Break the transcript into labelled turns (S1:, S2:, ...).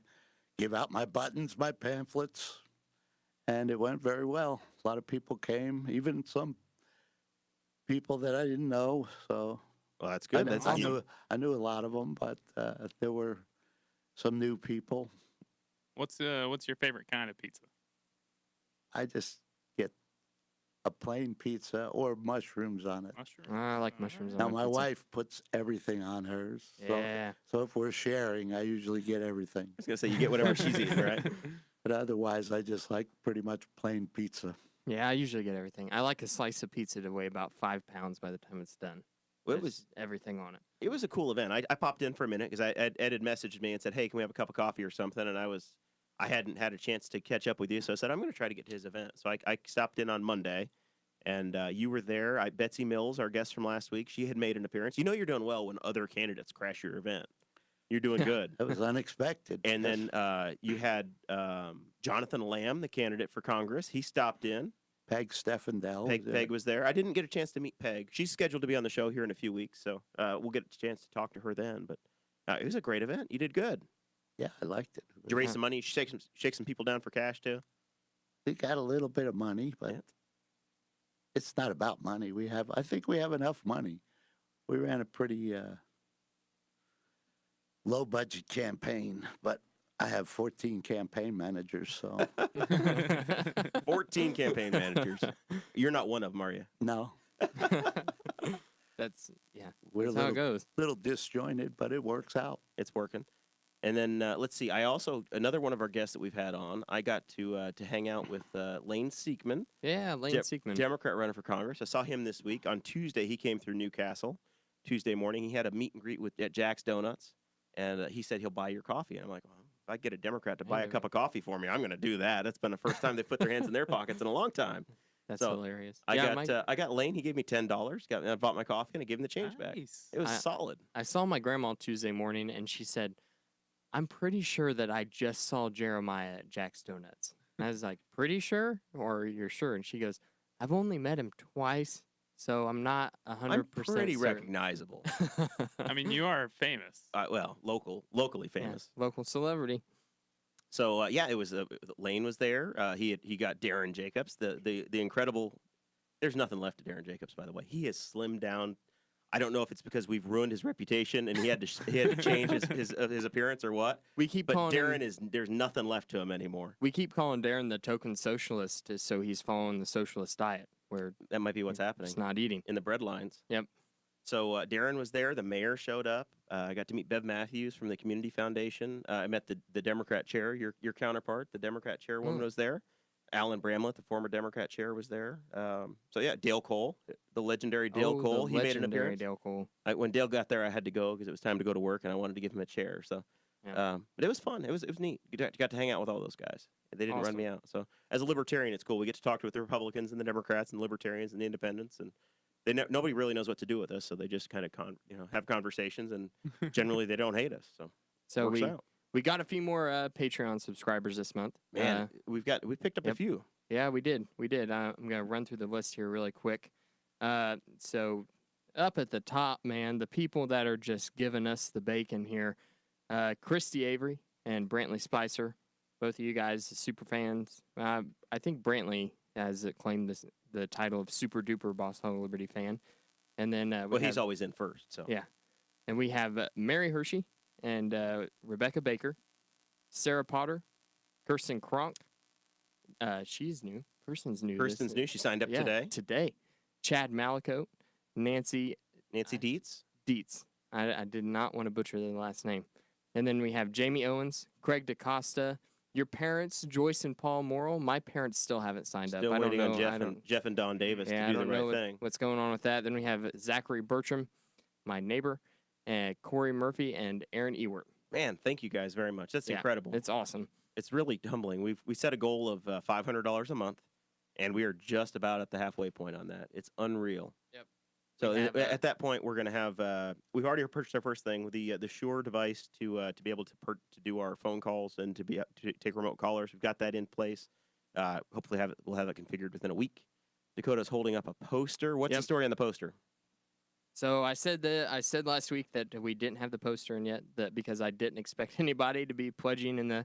S1: give out my buttons, my pamphlets, and it went very well. A lot of people came, even some people that I didn't know. So
S2: Well, that's
S1: I kn-
S2: good. That's
S1: I,
S2: awesome.
S1: knew, I knew a lot of them, but uh, there were some new people.
S3: What's uh what's your favorite kind of pizza?
S1: I just get a plain pizza or mushrooms on
S2: Uh,
S1: it.
S3: Mushroom.
S4: I like mushrooms
S3: Alright.
S1: Now
S4: on
S1: my
S4: pizza.
S1: wife puts everything on hers. So,
S4: Yeah.
S1: so if we're sharing, I usually get everything.
S2: I was gonna say you get whatever she's eating, right?
S1: But otherwise, I just like pretty much plain pizza.
S4: Yeah, I usually get everything. I like a slice of pizza to weigh about five pounds by the time it's done.
S2: Well, it
S4: Just
S2: was
S4: everything on it.
S2: it was a cool event. I, I popped in for a minute because I Ed, Ed had messaged me and said, "Hey, can we have a cup of coffee or something?" And I was I hadn't had a chance to catch up with you, so I said I'm going to try to get to his event. So I, I stopped in on Monday, and uh, you were there. I, Betsy Mills, our guest from last week, she had made an appearance. You know you're doing well when other candidates crash your event. You're doing good.
S1: That was unexpected.
S2: And then uh, you had um, Jonathan Lamb, the candidate for Congress. He stopped in.
S1: Peg Steffendell.
S2: Peg,
S1: uh,
S2: Peg was Oh, there. I didn't get a chance to meet Peg. She's scheduled to be on the show here in a few weeks, so uh, we'll get a chance to talk to her then. But uh, it was a great event. You did good.
S1: Yeah, I liked it.
S2: Did you raise some money? Shake some, shake some people down for cash too.
S1: We got a little bit of money, but
S2: Yeah.
S1: it's not about money. We have, I think we have enough money. We ran a pretty uh, low budget campaign, but I have 14 campaign managers. So,
S2: Fourteen campaign managers. You're not one of them, are you?
S1: no,
S4: That's yeah.
S1: we're a
S4: That's how
S1: little,
S4: it goes.
S1: little disjointed, but it works out.
S2: It's working. And then uh, let's see. I also another one of our guests that we've had on. I got to uh, to hang out with uh, Lane Siekman.
S4: Yeah, Lane
S2: Jep-
S4: Siegman.
S2: Democrat running for Congress. I saw him this week on Tuesday. He came through Newcastle Tuesday morning. He had a meet and greet with at Jack's Donuts, and uh, he said he'll buy your coffee. And I'm like, well, if I get a Democrat to buy a
S4: Hey.
S2: cup of coffee for me, I'm going to do that. That's been the first time they put their hands in their pockets in a long time.
S4: That's
S2: so,
S4: hilarious.
S2: I
S4: yeah,
S2: got
S4: my-
S2: uh, I got Lane. He gave me ten dollars. Got I bought my coffee and I gave him the change back.
S3: Nice.
S2: It was
S4: I-
S2: solid.
S4: I saw my grandma Tuesday morning, and she said, "I'm pretty sure that I just saw Jeremiah at Jack's Donuts." And I was like, "Pretty sure, or you're sure?" And she goes, "I've only met him twice, so I'm not a
S2: I'm
S4: hundred percent
S2: pretty
S4: certain."
S2: recognizable.
S3: I mean, you are famous.
S2: uh, well, local, locally
S4: Yeah,
S2: famous.
S4: local celebrity.
S2: So uh, yeah, it was uh, Lane was there. Uh, he had, he got Darren Jacobs, the the the incredible. There's nothing left to Darren Jacobs, by the way. He has slimmed down. I don't know if it's because we've ruined his reputation and he had to sh- he had to change his his, uh, his appearance or what.
S4: We keep
S2: But
S4: calling
S2: Darren
S4: him,
S2: is there's nothing left to him anymore.
S4: we keep calling Darren the token socialist, uh, so he's following the socialist diet where
S2: That might be what's happening
S4: it's not eating.
S2: in the bread lines.
S4: Yep.
S2: So uh, Darren was there. The mayor showed up. Uh, I got to meet Bev Matthews from the Community Foundation. Uh, I met the, the Democrat chair, your your counterpart, the Democrat chairwoman
S4: Mm.
S2: was there. Alan Bramlett, the former Democrat chair, was there. Um, so yeah, Dale Cole, the legendary Dale
S4: Oh, the
S2: Cole, he made an
S4: legendary
S2: appearance.
S4: Dale Cole.
S2: I, when Dale got there, I had to go because it was time to go to work, and I wanted to give him a chair. So,
S4: Yeah.
S2: um, but it was fun. It was it was neat. You got, got to hang out with all those guys. They didn't run
S4: Awesome.
S2: me out. So, as a libertarian, it's cool. We get to talk to with the Republicans and the Democrats and the Libertarians and the Independents, and they ne- nobody really knows what to do with us. So they just kind of con- you know have conversations, and generally they don't hate us. So, it
S4: So
S2: works
S4: we
S2: out.
S4: we got a few more uh, Patreon subscribers this month.
S2: man,
S4: Uh,
S2: we've got we picked up a
S4: yep.
S2: few.
S4: Yeah, we did. We did. Uh, I'm gonna run through the list here really quick. Uh, so up at the top, man, the people that are just giving us the bacon here, uh, Christy Avery and Brantley Spicer, both of you guys, super fans. Uh, I think Brantley has uh, claimed this the title of super duper Boss Hog Liberty fan, and then uh, we
S2: Well,
S4: have,
S2: he's always in first. So
S4: Yeah. and we have uh, Mary Hershey and uh, Rebecca Baker, Sarah Potter, Kirsten Kronk. Uh, she's new. Kirsten's new. this-
S2: Kirsten's new. She signed up
S4: yeah,
S2: today.
S4: Today. Chad Malicote, Nancy
S2: Nancy
S4: I-
S2: Dietz.
S4: Dietz. I, I did not want to butcher the last name. And then we have Jamie Owens, Craig DaCosta, your parents, Joyce and Paul Morrill. My parents still haven't signed
S2: Still
S4: up.
S2: waiting
S4: I don't know.
S2: on Jeff
S4: I
S2: and
S4: don't,
S2: Jeff and Don Davis
S4: yeah, I
S2: to do
S4: don't
S2: the
S4: know
S2: right
S4: what-
S2: thing.
S4: what's going on with that. Then we have Zachary Bertram, my neighbor, and Corey Murphy and Aaron Ewert.
S2: Man, thank you guys very much. That's
S4: Yeah,
S2: incredible.
S4: It's awesome.
S2: it's really humbling. We've we set a goal of uh, five hundred dollars a month, and we are just about at the halfway point on that. It's unreal.
S4: Yep.
S2: So
S4: We
S2: i-
S4: have, uh,
S2: at that point, we're going to have uh, we've already purchased our first thing, the uh, the Shure device to uh, to be able to per- to do our phone calls and to be up- to take remote callers. We've got that in place. Uh, hopefully, have it, we'll have it configured within a week. Dakota's holding up a poster. What's the
S4: Yep.
S2: story on the poster?
S4: So I said that I said last week that we didn't have the poster in yet that because I didn't expect anybody to be pledging in the